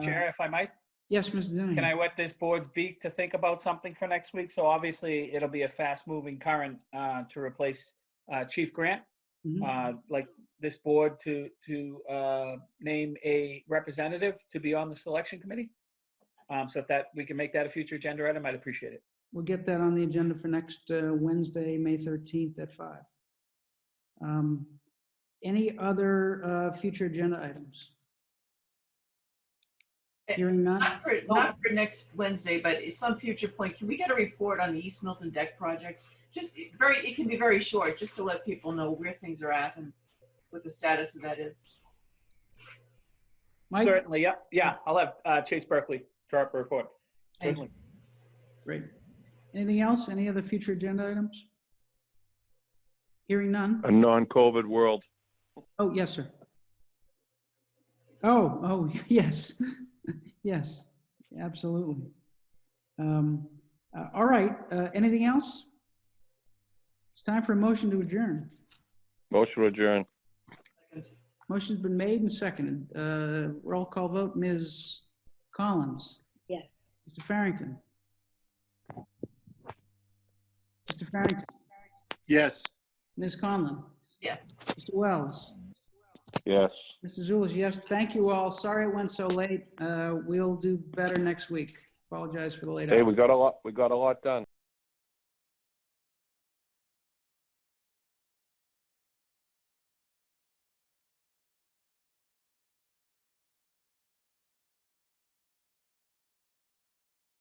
Chair, if I might, Yes, Mr. Dinning. can I wet this board's beak to think about something for next week? So obviously, it'll be a fast-moving current uh, to replace uh, Chief Grant. Mhm. Uh, Like this board to, to uh, name a representative to be on the selection committee. Um, So if that, we can make that a future agenda item, I'd appreciate it. We'll get that on the agenda for next uh, Wednesday, May 13th at five. Um Any other uh, future agenda items? Eh, Hearing uh, none? Not for, not for next Wednesday, but at some future point, can we get a report on the East Milton deck project? Just very, it can be very short, just to let people know where things are at and what the status of that is. Mike? Certainly, yeah, yeah, I'll have uh, Chase Berkeley draw up a report. Thank Certainly. Great. Anything else? Any other future agenda items? Hearing none? a non-COVID world. Oh, yes, sir. Oh, oh, yes, yes, absolutely. Um, uh, All right, uh, anything else? It's time for a motion to adjourn. Motion adjourned. Motion's been made and seconded. Uh, Roll call vote, Ms. Collins, Yes. Mr. Farrington. Mr. Farrington, Yes. Ms. Conlon. Yeah. Mr. Wells. Yes. Mr. Zulish, yes, thank you all. Sorry it went so late. Uh, We'll do better next week. Apologize for the late Hey, hour. we got a lot, we got a lot done.